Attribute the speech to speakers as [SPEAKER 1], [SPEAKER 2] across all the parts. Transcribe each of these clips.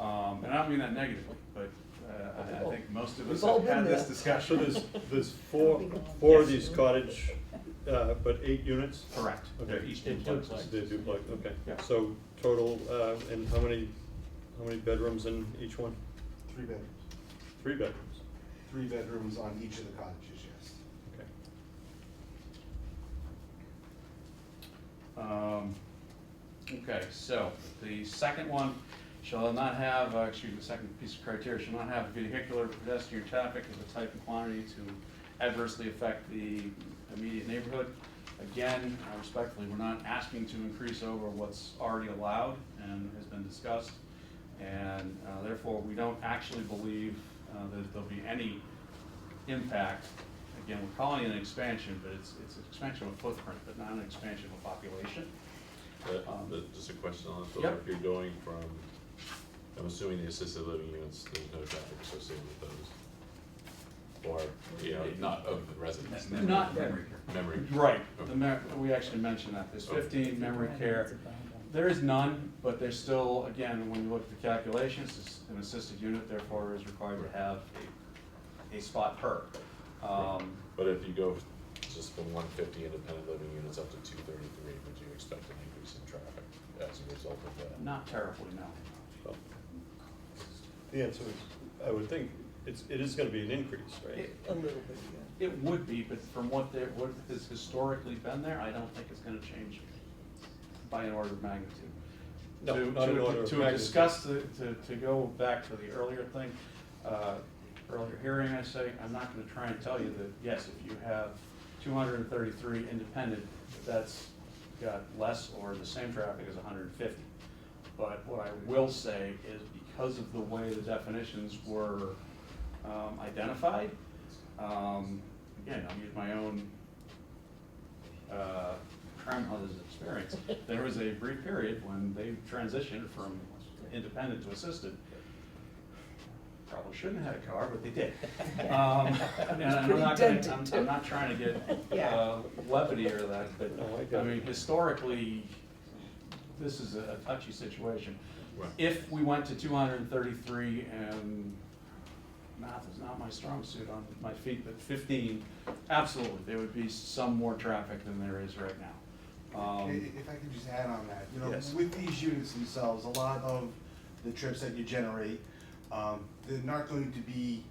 [SPEAKER 1] Um, and I don't mean that negatively, but, uh, I, I think most of us
[SPEAKER 2] We've all
[SPEAKER 1] have had
[SPEAKER 2] been
[SPEAKER 1] this
[SPEAKER 2] there.
[SPEAKER 3] So
[SPEAKER 1] discussion.
[SPEAKER 3] there's, there's four, four of these cottage, uh, but eight units?
[SPEAKER 1] Correct, they're
[SPEAKER 3] Okay.
[SPEAKER 1] each duplex.
[SPEAKER 3] They're duplex, okay.
[SPEAKER 1] Yeah.
[SPEAKER 3] So total, uh, and how many, how many bedrooms in each one?
[SPEAKER 4] Three bedrooms,
[SPEAKER 3] Three bedrooms,
[SPEAKER 4] three bedrooms on each of the cottages, yes.
[SPEAKER 3] okay.
[SPEAKER 1] Um, Okay, so the second one shall not have, uh, excuse me, the second piece of criteria shall not have vehicular pedestrian traffic of the type and quantity to adversely affect the immediate neighborhood. Again, uh, respectfully, we're not asking to increase over what's already allowed and has been discussed. And uh, therefore, we don't actually believe uh, that there'll be any impact. Again, we're calling it an expansion, but it's, it's an expansion of footprint, but not an expansion of population.
[SPEAKER 5] Uh,
[SPEAKER 1] Um,
[SPEAKER 5] the- Just a question on it, so
[SPEAKER 1] Yep.
[SPEAKER 5] if you're going from, I'm assuming the assisted living units, there's no traffic associated with those? Or, you know, not of the residents?
[SPEAKER 1] Not,
[SPEAKER 5] Memory.
[SPEAKER 1] right,
[SPEAKER 5] Okay.
[SPEAKER 1] the mer- we actually mentioned that, there's
[SPEAKER 5] Okay.
[SPEAKER 1] fifteen memory care. There is none, but there's still, again, when you look at the calculations, it's an assisted unit therefore is required to have a, a spot per. Um,
[SPEAKER 5] But if you go just from one fifty independent living units up to two thirty-three, would you expect an increase in traffic as a result of that?
[SPEAKER 1] Not terribly, no.
[SPEAKER 3] Well, The answer is, I would think, it's, it is gonna be an increase, right?
[SPEAKER 2] A little bit, yeah.
[SPEAKER 1] It would be, but from what there, what has historically been there, I don't think it's gonna change by an order of magnitude.
[SPEAKER 3] No,
[SPEAKER 1] To-
[SPEAKER 3] not an
[SPEAKER 1] to-
[SPEAKER 3] order of
[SPEAKER 1] To
[SPEAKER 3] magnitude.
[SPEAKER 1] discuss, the- to, to go back to the earlier thing, uh, earlier hearing, I say, I'm not gonna try and tell you that, yes, if you have two hundred and thirty-three independent, that's got less or the same traffic as hundred and fifty. But what I will say is because of the way the definitions were um, identified, um, again, I'll use my own uh, grandmother's experience. There was a brief period when they transitioned from independent to assisted. Probably shouldn't have had a car, but they did. Um, And I'm not gonna,
[SPEAKER 2] Pretty
[SPEAKER 1] I'm,
[SPEAKER 2] dented,
[SPEAKER 1] I'm not trying to get
[SPEAKER 2] Yeah.
[SPEAKER 1] uh, levity or that, but,
[SPEAKER 3] No, I get
[SPEAKER 1] I
[SPEAKER 3] it.
[SPEAKER 1] mean, historically, this is a a touchy situation.
[SPEAKER 5] Right.
[SPEAKER 1] If we went to two hundred and thirty-three and math is not my strong suit on my feet, but fifteen, absolutely, there would be some more traffic than there is right now.
[SPEAKER 4] I- i-
[SPEAKER 1] Um,
[SPEAKER 4] If I could just add on that, you know,
[SPEAKER 3] Yes.
[SPEAKER 4] with these units themselves, a lot of the trips that you generate, um, they're not going to be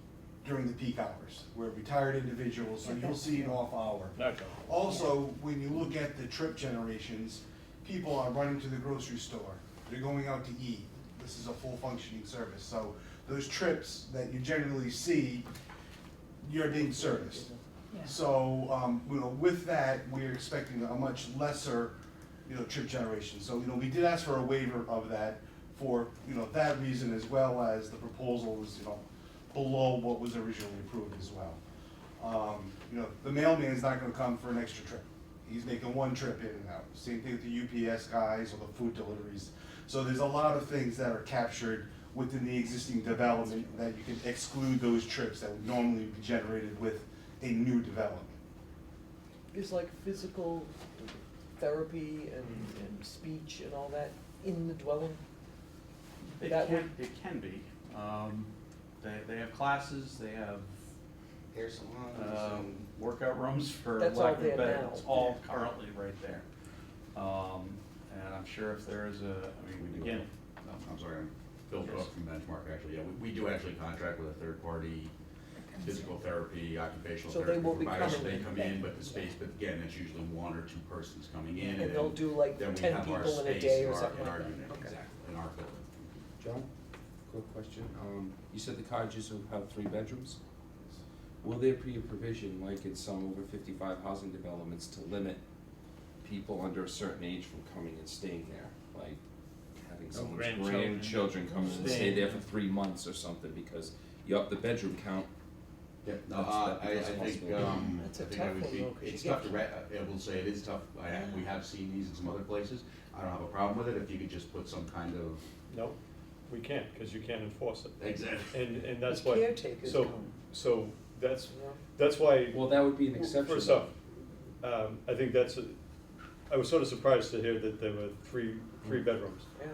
[SPEAKER 4] during the peak hours. We're retired individuals, so you'll see an off hour. Also, when you look at the trip generations, people are running to the grocery store, they're going out to eat. This is a full functioning service, so those trips that you generally see, you're being serviced. So, um, you know, with that, we're expecting a much lesser, you know, trip generation. So, you know, we did ask for a waiver of that for, you know, that reason as well as the proposal was, you know, below what was originally approved as well. Um, you know, the mailman's not gonna come for an extra trip. He's making one trip in and out. Same thing with the UPS guys or the food deliveries. So there's a lot of things that are captured within the existing development that you can exclude those trips that would normally be generated with a new development.
[SPEAKER 2] There's like physical therapy and, and speech and all that in the dwelling?
[SPEAKER 1] It
[SPEAKER 2] That
[SPEAKER 1] can,
[SPEAKER 2] would-
[SPEAKER 1] it can be. Um, They, they have classes, they have
[SPEAKER 4] Hair salons
[SPEAKER 1] um,
[SPEAKER 4] and
[SPEAKER 1] workout rooms for
[SPEAKER 2] That's
[SPEAKER 1] lack
[SPEAKER 2] all
[SPEAKER 1] of a
[SPEAKER 2] there
[SPEAKER 1] better.
[SPEAKER 2] now.
[SPEAKER 1] It's all currently right there. Um, And I'm sure if there is a, I mean,
[SPEAKER 6] We do.
[SPEAKER 1] again,
[SPEAKER 6] No, I'm sorry, I'm Phil
[SPEAKER 1] Yes.
[SPEAKER 6] Cook from Benchmark, actually, yeah, we, we do actually contract with a third-party physical therapy, occupational
[SPEAKER 2] So they
[SPEAKER 6] therapy
[SPEAKER 2] won't be
[SPEAKER 6] provider, so
[SPEAKER 2] coming
[SPEAKER 6] they
[SPEAKER 2] in.
[SPEAKER 6] come in, but the space, but again, it's usually one or two persons coming in, and
[SPEAKER 2] And they'll
[SPEAKER 6] then-
[SPEAKER 2] do like
[SPEAKER 6] then we
[SPEAKER 2] 10
[SPEAKER 6] have our
[SPEAKER 2] people in a
[SPEAKER 6] space
[SPEAKER 2] day
[SPEAKER 6] in
[SPEAKER 2] or
[SPEAKER 6] our-
[SPEAKER 2] something
[SPEAKER 6] in
[SPEAKER 2] like
[SPEAKER 6] our
[SPEAKER 2] that.
[SPEAKER 6] unit,
[SPEAKER 2] Okay.
[SPEAKER 6] Exactly, in our building.
[SPEAKER 7] John, quick question. Um, you said the cottages will have three bedrooms? Will there be a provision, like in some over fifty-five housing developments, to limit people under a certain age from coming and staying there? Like having someone's
[SPEAKER 8] grandchildren.
[SPEAKER 7] grandchildren come and stay
[SPEAKER 8] Staying.
[SPEAKER 7] there for three months or something because you up the bedroom count.
[SPEAKER 6] Yeah, no,
[SPEAKER 7] That's-
[SPEAKER 6] uh, I, I
[SPEAKER 7] that's
[SPEAKER 6] think,
[SPEAKER 7] possible.
[SPEAKER 6] um,
[SPEAKER 2] That's
[SPEAKER 6] I
[SPEAKER 2] a
[SPEAKER 6] think I
[SPEAKER 2] tough
[SPEAKER 6] would
[SPEAKER 2] one, though,
[SPEAKER 6] be,
[SPEAKER 2] 'cause you
[SPEAKER 6] it's
[SPEAKER 2] get-
[SPEAKER 6] tough to re, I will say it is tough, I, ha- we have seen these in some other places, I don't have a problem with it, if you could just put some kind of,
[SPEAKER 3] No, we can't, cause you can't enforce it.
[SPEAKER 6] exactly.
[SPEAKER 3] And, and that's
[SPEAKER 2] The
[SPEAKER 3] why,
[SPEAKER 2] caretakers
[SPEAKER 3] so,
[SPEAKER 2] come.
[SPEAKER 3] so that's,
[SPEAKER 2] you know?
[SPEAKER 3] that's why
[SPEAKER 7] Well, that would be an
[SPEAKER 3] Well,
[SPEAKER 7] exception.
[SPEAKER 3] First off,
[SPEAKER 7] Mm.
[SPEAKER 3] um, I think that's, a- I was sort of surprised to hear that there were three, three bedrooms.
[SPEAKER 2] Yeah.